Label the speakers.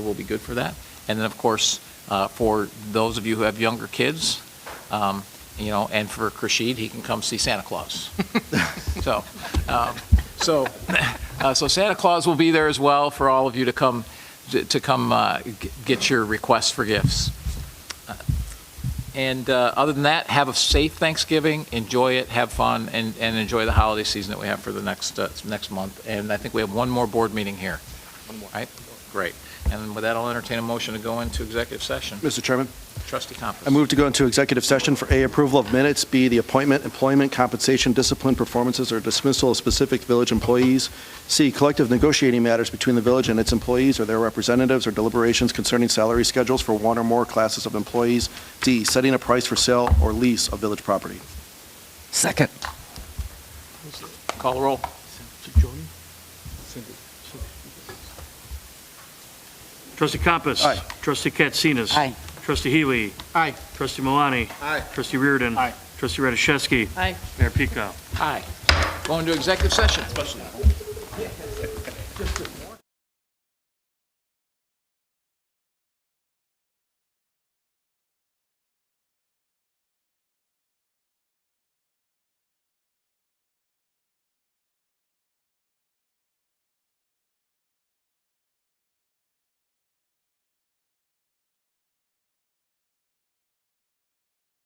Speaker 1: will be good for that. And then, of course, uh, for those of you who have younger kids, um, you know, and for Krashid, he can come see Santa Claus. So, um, so, uh, so Santa Claus will be there as well for all of you to come, to come uh, g- get your requests for gifts. Uh, And uh, other than that, have a safe Thanksgiving, enjoy it, have fun, and, and enjoy the holiday season that we have for the next, uh, next month. And I think we have one more board meeting here. One more. Right? Great. And with that, I'll entertain a motion to go into executive session.
Speaker 2: Mr. Chairman,
Speaker 1: Trustee Compass.
Speaker 2: I move to go into executive session for A, approval of minutes, B, the appointment, employment, compensation, discipline, performances, or dismissal of specific village employees, C, collective negotiating matters between the village and its employees or their representatives or deliberations concerning salary schedules for one or more classes of employees, D, setting a price for sale or lease of village property.
Speaker 3: Second.
Speaker 1: Call the roll.
Speaker 4: Trustee Compass.
Speaker 2: Aye.
Speaker 4: Trustee Katsinas.
Speaker 3: Aye.
Speaker 4: Trustee Healy. Aye. Trustee Malani. Aye. Trustee Reardon. Aye. Trustee Radiszewski.
Speaker 1: Aye.
Speaker 4: Mayor Pico.
Speaker 1: Aye. Go into executive session.